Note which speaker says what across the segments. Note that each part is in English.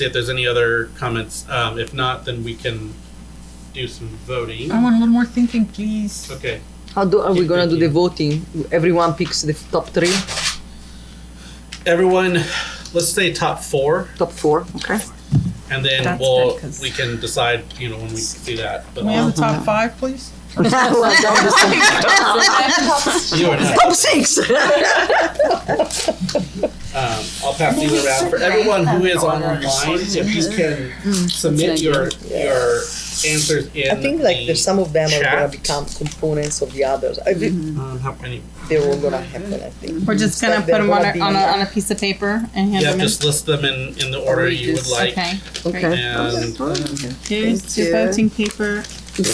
Speaker 1: see if there's any other comments. Um, if not, then we can do some voting.
Speaker 2: I want a little more thinking, please.
Speaker 1: Okay.
Speaker 3: How do, are we gonna do the
Speaker 1: Yeah.
Speaker 3: voting? Everyone picks the top three,
Speaker 1: Everyone, let's say top four,
Speaker 3: top four, okay?
Speaker 1: and then
Speaker 4: That's
Speaker 1: we'll
Speaker 4: good, 'cause-
Speaker 1: we can decide. You know when we do that. But
Speaker 2: Can we have the
Speaker 1: uh-huh.
Speaker 2: top five, please?
Speaker 3: Well, that was-
Speaker 1: you are not.
Speaker 3: Top six!
Speaker 1: Um, I'll pass these around for everyone who is online. If you can submit your your answers in.
Speaker 5: I think like
Speaker 1: the
Speaker 5: there's some of them are gonna
Speaker 1: chat.
Speaker 5: become components of the others. I think
Speaker 3: Mm-hmm.
Speaker 1: Um, how many?
Speaker 5: they're all gonna happen. I think.
Speaker 4: We're just
Speaker 5: gonna Like
Speaker 4: gonna
Speaker 5: put
Speaker 4: put
Speaker 5: there 'em on
Speaker 4: them on
Speaker 5: won't a-
Speaker 4: a,
Speaker 5: be- on
Speaker 4: on
Speaker 5: a-
Speaker 4: a,
Speaker 5: on
Speaker 4: piece of paper and hand
Speaker 1: Yeah,
Speaker 4: them
Speaker 1: just list them in in the order you would like.
Speaker 4: Okay.
Speaker 3: Okay,
Speaker 1: And
Speaker 4: Here's your voting paper.
Speaker 1: we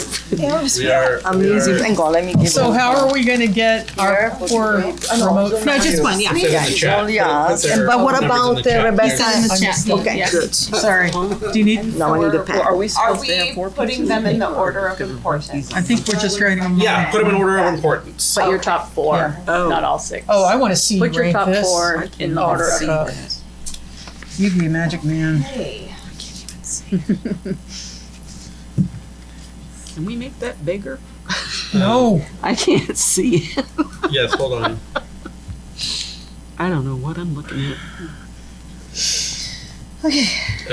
Speaker 1: are.
Speaker 3: I'm
Speaker 1: we
Speaker 3: lazy.
Speaker 1: are-
Speaker 3: Thank
Speaker 5: God, let me give
Speaker 2: So how are we gonna get our
Speaker 5: Here,
Speaker 2: poor remote?
Speaker 4: No, just one, yeah.
Speaker 1: It says in the chat.
Speaker 5: only us.
Speaker 1: Put their
Speaker 3: But what
Speaker 1: numbers in
Speaker 3: about,
Speaker 1: the
Speaker 3: uh,
Speaker 1: chat.
Speaker 3: Rebecca?
Speaker 4: Send in the chat.
Speaker 3: Okay,
Speaker 4: yeah.
Speaker 3: good.
Speaker 2: Sorry. Do you need?
Speaker 3: Now I need a pen.
Speaker 5: we
Speaker 6: Are we putting them in the order of importance?
Speaker 2: I think we're just writing them.
Speaker 1: Yeah, put them in order of importance.
Speaker 6: But your top four, not all six.
Speaker 2: Oh, I want to see you
Speaker 6: Put your
Speaker 2: rank
Speaker 6: top
Speaker 2: this.
Speaker 6: four in the order of
Speaker 2: Uh,
Speaker 6: importance.
Speaker 2: You'd be a magic man.
Speaker 7: Can we make that bigger?
Speaker 2: No.
Speaker 7: I can't see it.
Speaker 1: Yes, hold on.
Speaker 7: I don't know what I'm looking at.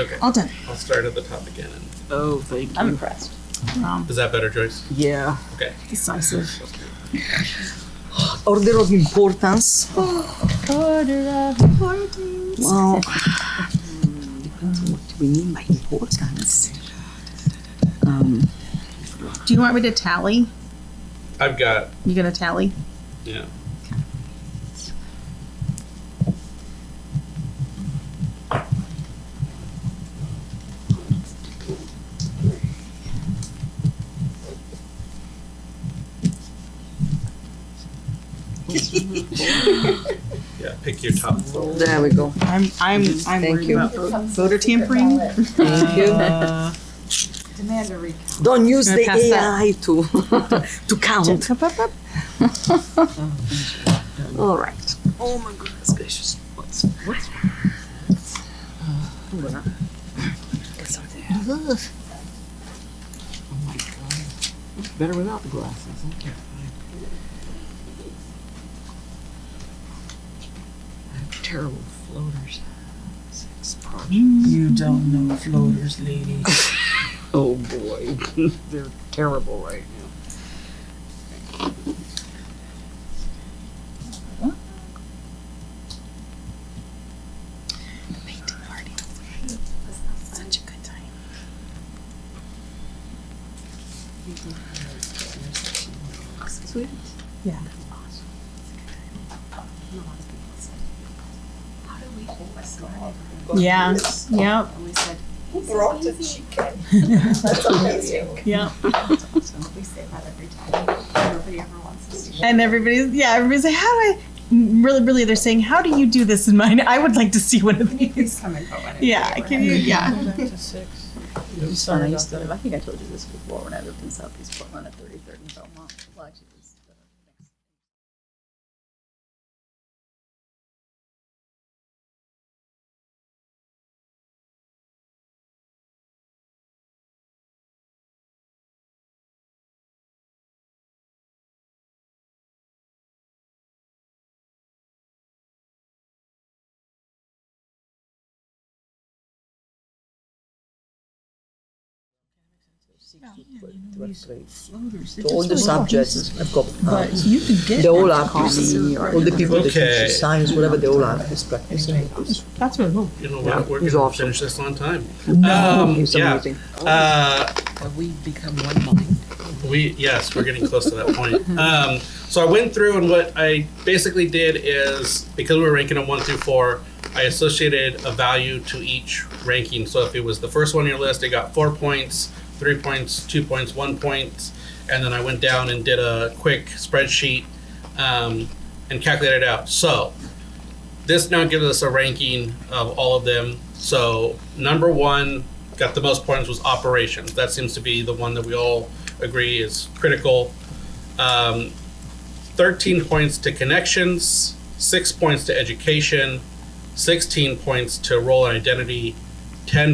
Speaker 1: Okay,
Speaker 4: All done.
Speaker 1: I'll start at the top again. and-
Speaker 7: Oh, thank you.
Speaker 6: I'm impressed.
Speaker 1: Is that better, Joyce?
Speaker 7: yeah.
Speaker 1: Okay.
Speaker 7: Decisive.
Speaker 3: Order of importance. Well,
Speaker 7: What do we mean by importance? Um,
Speaker 4: Do you want me to tally?
Speaker 1: I've got,
Speaker 4: You gonna tally?
Speaker 1: yeah. Yeah, pick your top four.
Speaker 3: there we go.
Speaker 4: I'm I'm I'm
Speaker 3: Thank
Speaker 4: worried
Speaker 3: you.
Speaker 2: Uh,
Speaker 4: about voter tampering.
Speaker 3: Thank you.
Speaker 6: Demand a recount.
Speaker 3: Don't use
Speaker 4: Gonna
Speaker 3: the
Speaker 4: pass that.
Speaker 3: AI to, to count. All right.
Speaker 7: oh my goodness gracious. What's what's
Speaker 3: Ugh.
Speaker 7: oh my god. It's better without the glasses. Okay. I have terrible floaters. Six projects.
Speaker 2: You don't know floaters, lady.
Speaker 7: Oh boy. They're terrible right now.
Speaker 4: Such a good time.
Speaker 7: Sweet.
Speaker 4: Yeah. Yeah. Yep.
Speaker 5: Who brought the chicken? That's amazing.
Speaker 4: Yep.
Speaker 6: We say that every time. Nobody ever wants us to.
Speaker 4: And everybody's yeah, everybody's like, how do I really really they're saying, How do you do this in mine? I would like to see one of these.
Speaker 6: Come and go whenever
Speaker 4: Yeah,
Speaker 6: they were
Speaker 4: can you yeah.
Speaker 6: having- So I used to live, I think I told you this before, when I lived in Southeast Portland at 33rd and Belmont. Well, actually, it was the next
Speaker 5: To all the subjects, I've got, uh,
Speaker 2: You could get.
Speaker 5: they all are practicing, all the people that
Speaker 1: Okay. Um,
Speaker 5: teach science, whatever, they all are is practicing.
Speaker 4: That's really cool.
Speaker 1: You know what, we're
Speaker 3: it was
Speaker 1: gonna
Speaker 3: awesome.
Speaker 1: finish this on time. Um,
Speaker 3: It's
Speaker 1: yeah,
Speaker 3: amazing.
Speaker 1: uh,
Speaker 7: Have we become one mind?
Speaker 1: We yes, we're getting close to that point. Um, so I went through and what I basically did is because we were ranking them one through four, I associated a value to each ranking. So if it was the first one on your list, it got four points, three points, two points, one point, and then I went down and did a quick spreadsheet um, and calculated it out. So this now gives us a ranking of all of them. So number one got the most points was operations. That seems to be the one that we all agree is critical. Um, 13 points to connections, six points to education, 16 points to role and identity, ten